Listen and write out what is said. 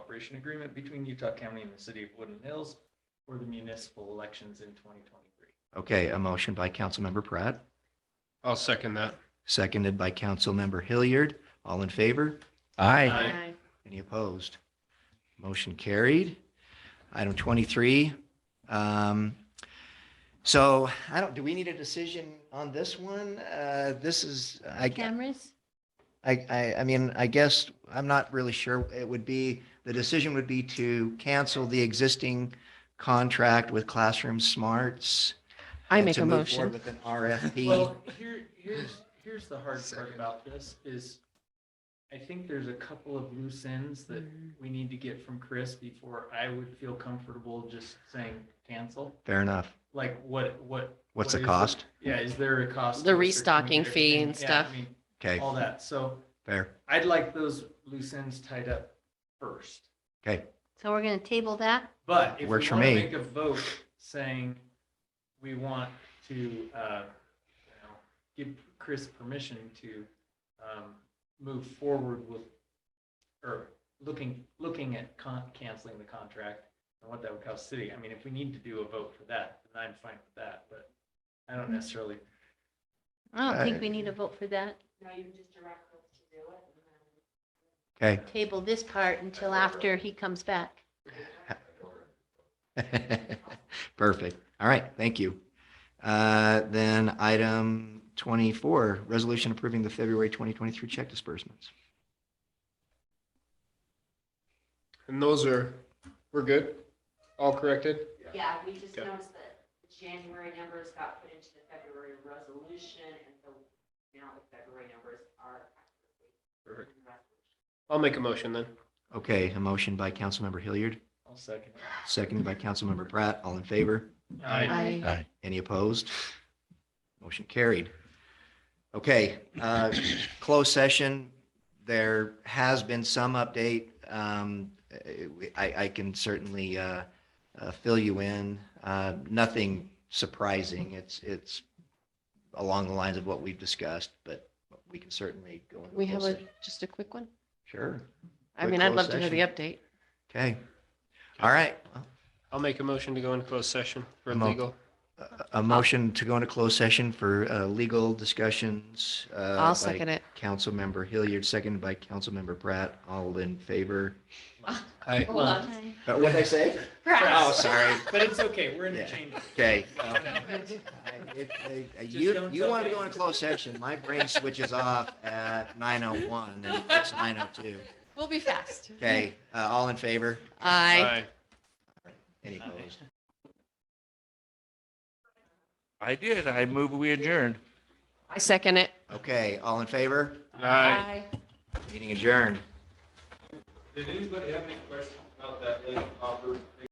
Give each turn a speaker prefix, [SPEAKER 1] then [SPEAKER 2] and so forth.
[SPEAKER 1] cooperation agreement between Utah County and the city of Woodland Hills for the municipal elections in twenty twenty-three.
[SPEAKER 2] Okay, a motion by Councilmember Pratt,
[SPEAKER 3] I'll second that.
[SPEAKER 2] seconded by Councilmember Hilliard. All in favor?
[SPEAKER 1] Aye.
[SPEAKER 2] Any opposed? Motion carried. Item 23. um, So I don't, do we need a decision on this one? Uh, This is, I,
[SPEAKER 4] Cameras?
[SPEAKER 2] I, I, I mean, I guess, I'm not really sure. It would be, the decision would be to cancel the existing contract with Classroom Smarts.
[SPEAKER 5] I
[SPEAKER 2] and
[SPEAKER 5] make
[SPEAKER 2] to
[SPEAKER 5] a
[SPEAKER 2] move forward
[SPEAKER 5] motion.
[SPEAKER 2] With an RFP.
[SPEAKER 1] Well, here, here's, here's the hard part
[SPEAKER 3] Second.
[SPEAKER 1] about this is I think there's a couple of loose ends that we need to get from Chris before I would feel comfortable just saying cancel.
[SPEAKER 2] Fair enough.
[SPEAKER 1] Like what, what?
[SPEAKER 2] What's
[SPEAKER 1] what
[SPEAKER 2] the
[SPEAKER 1] is
[SPEAKER 2] cost?
[SPEAKER 1] Yeah, is there a cost?
[SPEAKER 5] The
[SPEAKER 1] to a certain
[SPEAKER 5] restocking fee
[SPEAKER 1] community?
[SPEAKER 5] and
[SPEAKER 1] Yeah, I
[SPEAKER 5] stuff.
[SPEAKER 1] mean,
[SPEAKER 2] Okay,
[SPEAKER 1] All that. So
[SPEAKER 2] fair.
[SPEAKER 1] I'd like those loose ends tied up first.
[SPEAKER 2] Okay,
[SPEAKER 4] So we're going to table that?
[SPEAKER 1] But if we want
[SPEAKER 2] Works
[SPEAKER 1] to
[SPEAKER 2] for me.
[SPEAKER 1] make a vote saying we want to, uh, you know, give Chris permission to, um, move forward with, or looking, looking at con, canceling the contract and what that would cost city. I mean, if we need to do a vote for that, then I'm fine with that, but I don't necessarily,
[SPEAKER 4] I don't
[SPEAKER 2] Uh,
[SPEAKER 4] think we need a vote for that.
[SPEAKER 2] okay.
[SPEAKER 4] Table this part until after he comes back.
[SPEAKER 2] Perfect. All right, thank you. Uh, Then item 24, resolution approving the February 2023 check disbursements.
[SPEAKER 3] And those are, we're good? All corrected?
[SPEAKER 6] Yeah, we just
[SPEAKER 3] Okay.
[SPEAKER 6] noticed that the January numbers got put into the February resolution, and so now the February numbers are accurately in
[SPEAKER 3] Perfect.
[SPEAKER 6] the resolution.
[SPEAKER 3] I'll make a motion then.
[SPEAKER 2] Okay, a motion by Councilmember Hilliard,
[SPEAKER 1] I'll second. Um,
[SPEAKER 2] seconded by Councilmember Pratt. All in favor?
[SPEAKER 1] I
[SPEAKER 5] Aye.
[SPEAKER 2] Any opposed? Motion carried. Okay, uh, closed session. There has been some update. Um, I, I can certainly uh, uh, fill you in. Uh, Nothing surprising. It's, it's along the lines of what we've discussed, but we can certainly go into
[SPEAKER 5] We have
[SPEAKER 2] closed
[SPEAKER 5] a,
[SPEAKER 2] session.
[SPEAKER 5] just a quick one.
[SPEAKER 2] Sure.
[SPEAKER 5] I
[SPEAKER 2] Quick
[SPEAKER 5] mean, I'd
[SPEAKER 2] closed
[SPEAKER 5] love to hear the
[SPEAKER 2] session.
[SPEAKER 5] update.
[SPEAKER 2] Okay. All right. Well,
[SPEAKER 3] I'll make a motion to go into closed session for
[SPEAKER 2] Mo-
[SPEAKER 3] legal.
[SPEAKER 2] a- A motion to go into closed session for uh, legal discussions. uh,
[SPEAKER 5] I'll
[SPEAKER 2] by
[SPEAKER 5] second it.
[SPEAKER 2] Councilmember Hilliard, seconded by Councilmember Pratt. All in favor?
[SPEAKER 3] Aye.
[SPEAKER 1] Well,
[SPEAKER 4] Aye.
[SPEAKER 2] What did Uh, I say? Oh, sorry.
[SPEAKER 1] But it's okay, we're
[SPEAKER 2] Yeah.
[SPEAKER 1] interchangeable.
[SPEAKER 2] Okay.
[SPEAKER 1] Just
[SPEAKER 2] Uh, You,
[SPEAKER 1] don't
[SPEAKER 2] you
[SPEAKER 1] tell
[SPEAKER 2] wanted to
[SPEAKER 1] me.
[SPEAKER 2] go in closed session. My brain switches off at 9:01 and it's 9:02.
[SPEAKER 5] We'll be fast.
[SPEAKER 2] Okay, uh, all in favor?
[SPEAKER 5] Aye.
[SPEAKER 2] Any opposed?
[SPEAKER 7] I did. I move we adjourned.
[SPEAKER 5] I second it.
[SPEAKER 2] Okay, all in favor?
[SPEAKER 3] Aye.
[SPEAKER 2] Meeting adjourned.
[SPEAKER 1] Did anybody have any questions about that offer?